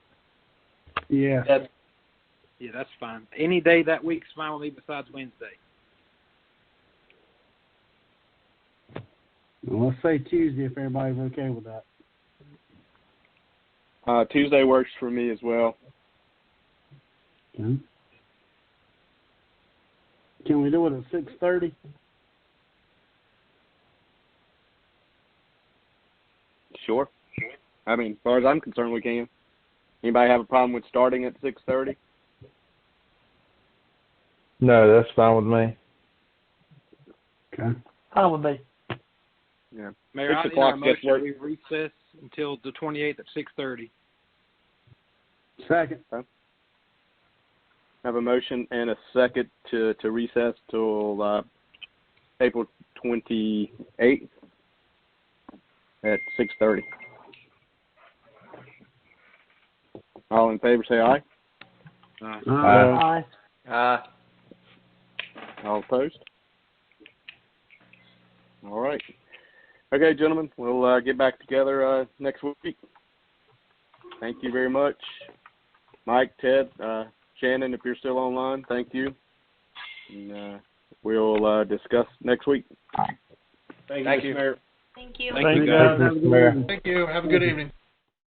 Yeah. That's, yeah, that's fine. Any day that week's fine with me besides Wednesday. Well, let's say Tuesday if everybody's okay with that. Uh, Tuesday works for me as well. Okay. Can we do it at six thirty? Sure. I mean, as far as I'm concerned, we can. Anybody have a problem with starting at 6:30? No, that's fine with me. Okay. Fine with me. Yeah. Mayor, Six I'll enter o'clock a gets motion work. that we recess until the 28th at 6:30. Second. Have a motion and a second to to recess till uh, April 28th at 6:30. All in favor, say aye. Uh, Aye. Aye. Uh, All opposed? All right. Okay, gentlemen, we'll uh, get back together uh, next week. Thank you very much. Mike, Ted, uh, Shannon, if you're still online, thank you. And, uh, we'll uh, discuss next week. Thank you. Thank you. Thank you guys. Thank you, Mr. Mayor. Thank you. Have a good evening.